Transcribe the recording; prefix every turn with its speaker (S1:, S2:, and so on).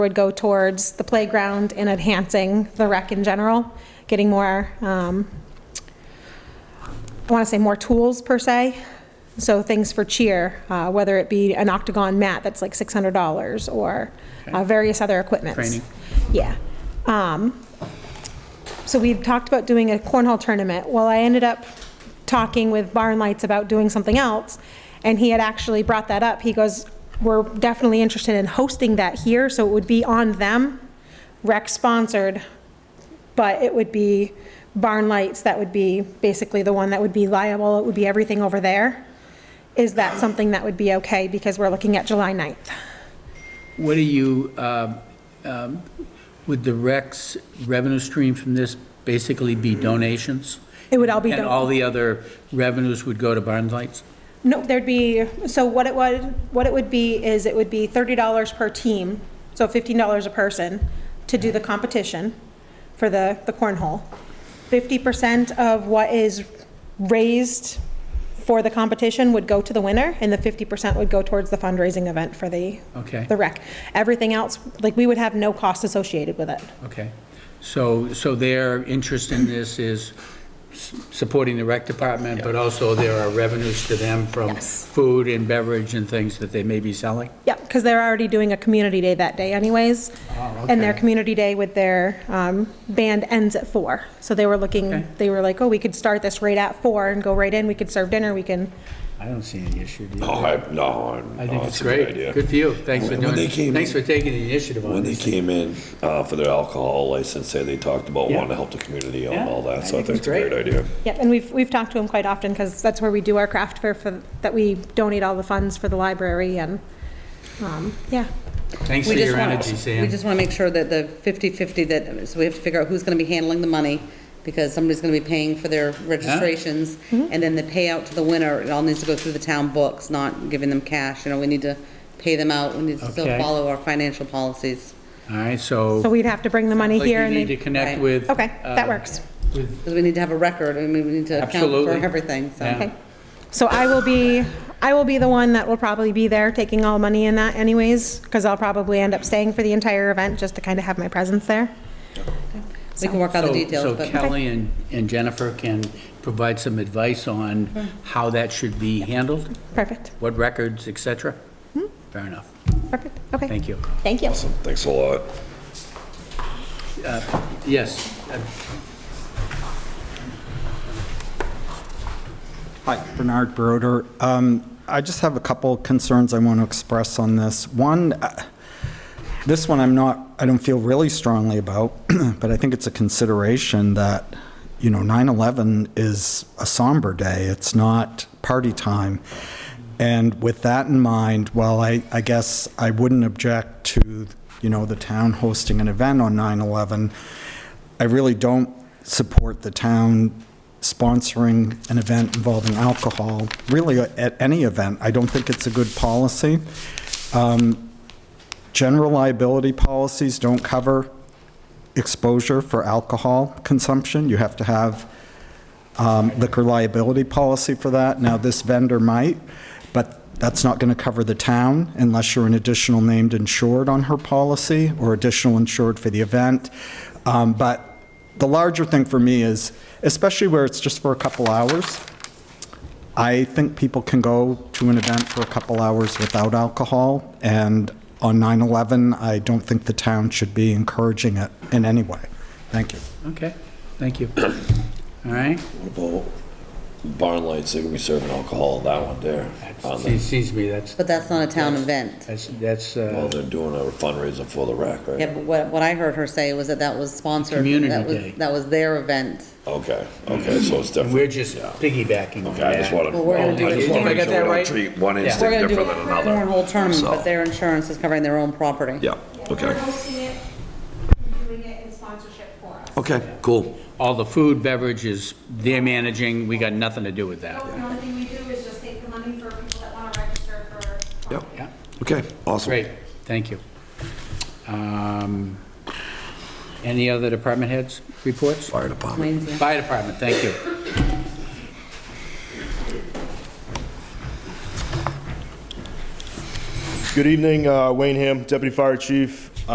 S1: would go towards the playground and enhancing the rec in general, getting more, um, I want to say more tools per se. So things for cheer, uh, whether it be an octagon mat that's like $600 or uh, various other equipments.
S2: Training.
S1: Yeah. Um, so we talked about doing a cornhole tournament. Well, I ended up talking with Barn Lights about doing something else, and he had actually brought that up. He goes, "We're definitely interested in hosting that here, so it would be on them, rec sponsored, but it would be Barn Lights that would be basically the one that would be liable. It would be everything over there. Is that something that would be okay because we're looking at July 9th?
S2: What do you, um, um, would the Rex revenue stream from this basically be donations?
S1: It would all be
S2: And
S1: don-
S2: all the other revenues would go to Barnes Lights?
S1: No, there'd be, so what it would, what it would be is it would be thirty dollars per team, so fifteen dollars a person to do the competition for the, the cornhole. Fifty percent of what is raised for the competition would go to the winner, and the fifty percent would go towards the fundraising event for the,
S2: Okay,
S1: the rec. Everything else, like, we would have no cost associated with it.
S2: okay. So, so their interest in this is s- supporting the rec department, but also there are revenues to them from
S1: Yes.
S2: food and beverage and things that they may be selling?
S1: Yeah, because they're already doing a community day that day anyways.
S2: Oh,
S1: And their
S2: okay.
S1: community day with their um, band ends at four. So they were
S2: Okay.
S1: looking, they were like, oh, we could start this right at four and go right in. We could serve dinner, we can,
S2: I don't see any issue, do you?
S3: Oh, I, no, I'm-
S2: I
S3: no,
S2: think it's
S3: Oh, a good
S2: great.
S3: idea.
S2: Good for you. Thanks for
S3: When
S2: doing,
S3: they came
S2: thanks for
S3: in-
S2: taking the initiative on
S3: When they
S2: this.
S3: came in uh, for their alcohol license, say they talked about
S2: Yeah.
S3: wanting to help the community and
S2: Yeah,
S3: all
S2: I
S3: that, so I
S2: think
S3: think
S2: it's
S3: it's a great
S2: great.
S3: idea.
S1: yeah. And we've, we've talked to them quite often because that's where we do our craft fair for, that we donate all the funds for the library and, um, yeah.
S2: Thanks for
S4: We just
S2: your
S4: want
S2: energy,
S4: to, we
S2: Sam.
S4: just want to make sure that the 50/50 that, so we have to figure out who's going to be handling the money, because somebody's going to be paying for their registrations, and then the payout to the winner, it all needs to go through the town books, not giving them cash, you know, we need to pay them out, we need to still
S2: Okay.
S4: follow our financial policies.
S2: All right,
S1: So we'd have to bring the money
S2: Like
S1: here
S2: you
S1: and
S2: need to
S1: they,
S2: connect
S4: Right.
S2: with.
S1: okay, that
S2: uh,
S1: works.
S2: with-
S4: Because we need to have a record, I mean, we need to account for
S2: Absolutely.
S4: everything, so.
S2: Yeah.
S1: Okay. So I will be, I will be the one that will probably be there taking all money in that anyways, because I'll probably end up staying for the entire event just to kind of have my presence there.
S4: We can work out the
S2: so-
S4: details,
S2: So
S4: but
S2: Kelly and and Jennifer can provide some advice on
S1: Mm-hmm.
S2: how that should be handled,
S1: Perfect,
S2: what records, et cetera?
S1: Mm-hmm.
S2: Fair enough.
S1: perfect, okay.
S2: Thank you.
S1: Thank you.
S3: Awesome, thanks a lot.
S2: Yes, uh,
S5: Hi, Bernard Broder. Um, I just have a couple concerns I want to express on this. One, uh, this one I'm not, I don't feel really strongly about, but I think it's a consideration that, you know, 9/11 is a somber day. It's not party time. And with that in mind, while I, I guess I wouldn't object to, you know, the town hosting an event on 9/11, I really don't support the town sponsoring an event involving alcohol, really uh, at any event. I don't think it's a good policy. Um, General liability policies don't cover exposure for alcohol consumption. You have to have um, liquor liability policy for that. Now, this vendor might, but that's not going to cover the town unless you're an additional named insured on her policy or additional insured for the event. Um, But the larger thing for me is, especially where it's just for a couple hours, I think people can go to an event for a couple hours without alcohol, and on 9/11, I don't think the town should be encouraging it in any way. Thank you.
S2: okay, thank you. All right,
S3: What about barn lights, they're gonna be serving alcohol on that one there. on
S2: it
S3: the-
S2: seems to me that's,
S4: but that's not a town event.
S2: that's, that's
S3: Well,
S2: uh,
S3: they're doing a fundraiser for the rack,
S4: Yeah,
S3: right?
S4: but what, what I heard her say was that that was sponsored.
S2: Community
S4: that was-
S2: day.
S4: That was their event.
S3: Okay, okay, so it's
S2: we're
S3: different.
S2: just piggybacking on
S3: Okay, I just
S2: that.
S3: wanted,
S4: Well, we're gonna
S3: I
S4: do it-
S3: just wanna
S2: Did I
S3: make
S2: get
S3: sure
S2: that
S3: we
S2: right?
S3: don't treat one
S2: Yeah.
S4: We're
S3: instinct
S4: gonna do a
S3: different than another.
S4: cornhole tournament,
S3: So-
S4: but their insurance is covering their own property.
S3: Yeah, okay.
S1: hosting it, doing it in sponsorship for us.
S3: Okay, cool.
S2: All the food, beverages, they're managing, we got nothing to do with that.
S6: The only thing we do is just take the money for people that want to register for
S3: Yep,
S2: Yeah.
S3: okay, awesome.
S2: Great, thank you. Um, Any other department heads' reports?
S3: Fire department.
S4: Wayne's, yeah.
S2: Fire department, thank you.
S7: Good evening, uh, Wayne Ham, Deputy Fire Chief.